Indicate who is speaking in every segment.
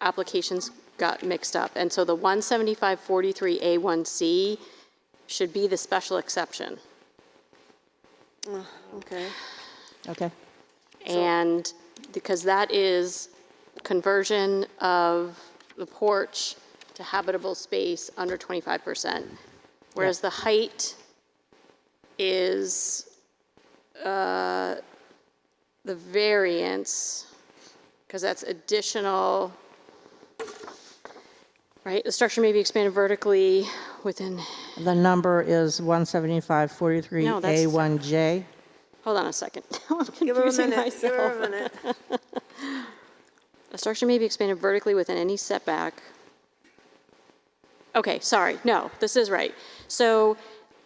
Speaker 1: applications got mixed up. And so the 17543A1C should be the special exception.
Speaker 2: Okay.
Speaker 3: Okay.
Speaker 1: And because that is conversion of the porch to habitable space under 25%. Whereas the height is, uh, the variance, because that's additional, right? The structure may be expanded vertically within,
Speaker 3: The number is 17543
Speaker 1: No, that's-
Speaker 3: a one j
Speaker 1: hold on a second. I'm
Speaker 2: Give her a
Speaker 1: confusing
Speaker 2: minute, give her
Speaker 1: myself.
Speaker 2: a minute.
Speaker 1: A structure may be expanded vertically within any setback. Okay, sorry, no, this is right. So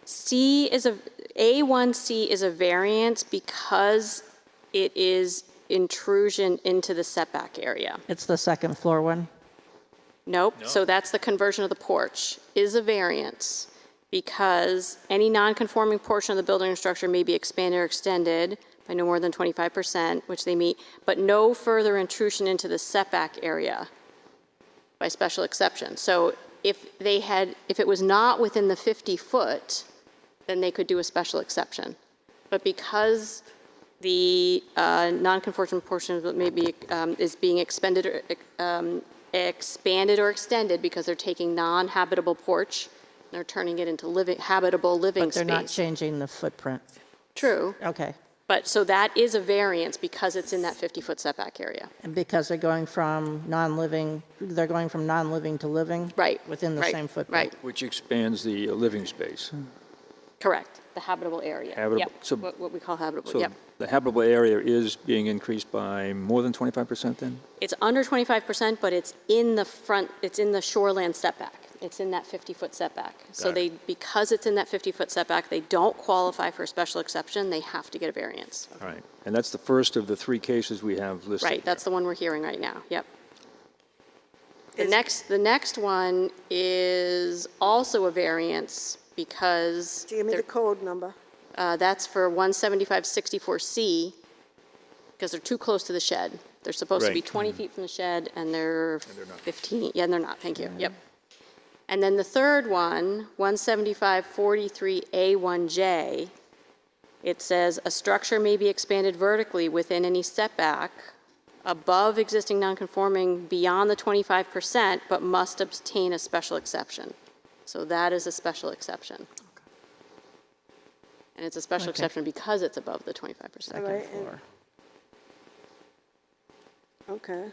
Speaker 1: C is a, A1C is a variance because it is intrusion into the setback area.
Speaker 3: It's the second floor one.
Speaker 1: Nope, so that's the conversion of the porch, is a variance because any non-conforming portion of the building or structure may be expanded or extended by no more than 25%, which they meet, but no further intrusion into the setback area by special exception. So if they had, if it was not within the 50-foot, then they could do a special exception. But because the uh, non-conforming portion of it maybe um, is being expended, or, um, expanded or extended because they're taking non-habitable porch, and they're turning it into living, habitable living
Speaker 3: But they're not
Speaker 1: space.
Speaker 3: changing the footprint.
Speaker 1: True,
Speaker 3: Okay.
Speaker 1: but, so that is a variance because it's in that 50-foot setback area.
Speaker 3: And because they're going from non-living, they're going from non-living to living?
Speaker 1: Right.
Speaker 3: Within the
Speaker 1: right,
Speaker 3: same footprint?
Speaker 1: Right,
Speaker 4: Which expands the uh, living space.
Speaker 1: Hmm. correct, the habitable area.
Speaker 4: Habitable.
Speaker 1: Yep,
Speaker 4: So-
Speaker 1: What what we call habitable,
Speaker 4: So
Speaker 1: yep.
Speaker 4: the habitable area is being increased by more than 25% then?
Speaker 1: It's under 25%, but it's in the front, it's in the shoreland setback. It's in that 50-foot setback. So
Speaker 4: Got
Speaker 1: they,
Speaker 4: it.
Speaker 1: because it's in that 50-foot setback, they don't qualify for a special exception, they have to get a variance.
Speaker 4: All right. And that's the first of the three cases we have listed.
Speaker 1: Right, that's the one we're hearing right now, yep. The
Speaker 2: Is-
Speaker 1: next, the next one is also a variance because
Speaker 2: Give me the code number.
Speaker 1: uh, that's for 175-64C, because they're too close to the shed. They're supposed to be
Speaker 4: Right.
Speaker 1: 20 feet from the shed, and they're 15, yeah, and they're not, thank you, yep. And then the third one, 175-43A1J, it says, "A structure may be expanded vertically within any setback above existing nonconforming beyond the 25%, but must obtain a special exception." So that is a special exception. And it's a special exception because it's above the 25%.
Speaker 2: Right,
Speaker 3: Second
Speaker 2: and-
Speaker 3: floor.
Speaker 2: Okay.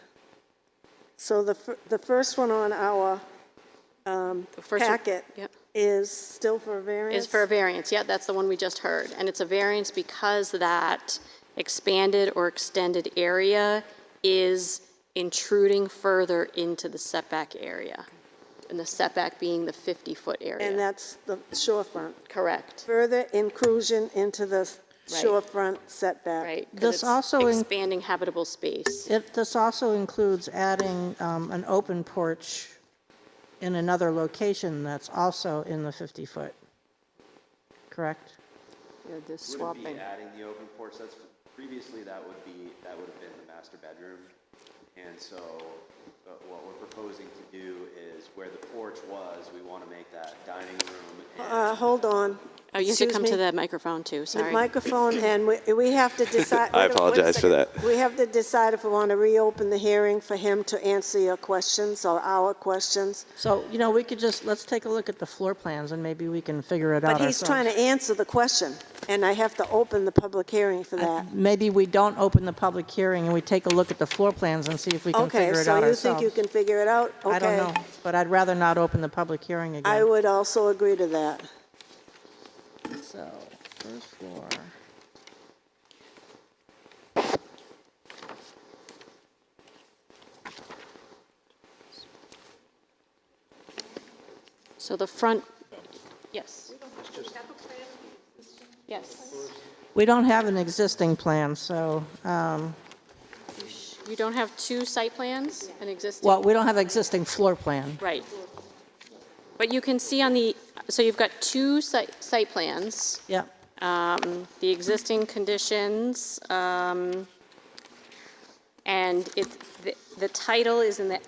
Speaker 2: So the, fir- the first one on our
Speaker 1: The first one-
Speaker 2: packet
Speaker 1: Yep.
Speaker 2: is still for a variance?
Speaker 1: Is for a variance, yeah, that's the one we just heard. And it's a variance because that expanded or extended area is intruding further into the setback area. And the setback being the 50-foot
Speaker 2: And
Speaker 1: area.
Speaker 2: that's the shorefront.
Speaker 1: Correct,
Speaker 2: Further inclusion into the
Speaker 1: Right.
Speaker 2: shorefront setback.
Speaker 1: right? 'cause
Speaker 3: This
Speaker 1: it's
Speaker 3: also in-
Speaker 1: Expanding habitable space.
Speaker 3: It, this also includes adding um, an open porch in another location that's also in the 50-foot, correct?
Speaker 5: Wouldn't be adding the open porch, that's, previously that would be, that would have been the master bedroom. And so, uh, what we're proposing to do is where the porch was, we want to make that dining room and
Speaker 2: Uh, hold on.
Speaker 1: Oh, you have to
Speaker 2: Excuse
Speaker 1: come to
Speaker 2: me.
Speaker 1: the microphone too,
Speaker 2: The
Speaker 1: sorry.
Speaker 2: microphone, and we, we have to decide. wait
Speaker 5: I
Speaker 2: a- wait a
Speaker 5: apologize for
Speaker 2: second.
Speaker 5: that.
Speaker 2: We have to decide if we want to reopen the hearing for him to answer your questions or our questions.
Speaker 3: So, you know, we could just, let's take a look at the floor plans and maybe we can figure it
Speaker 2: But
Speaker 3: out ourselves.
Speaker 2: he's trying to answer the question, and I have to open the public hearing for that.
Speaker 3: Maybe we don't open the public hearing and we take a look at the floor plans and see if we can
Speaker 2: Okay,
Speaker 3: figure it
Speaker 2: so
Speaker 3: out
Speaker 2: you think
Speaker 3: ourselves.
Speaker 2: you can figure it out?
Speaker 3: I don't
Speaker 2: Okay.
Speaker 3: know, but I'd rather not open the public hearing
Speaker 2: I
Speaker 3: again.
Speaker 2: would also agree to that.
Speaker 3: So, first floor.
Speaker 1: So the front, yes. Yes.
Speaker 3: We don't have an existing plan, so, um,
Speaker 1: You don't have two site plans, an existing?
Speaker 3: well, we don't have existing floor plan.
Speaker 1: Right. But you can see on the, so you've got two site, site plans,
Speaker 3: Yep.
Speaker 1: the existing conditions, um, and it's, the, the title is in the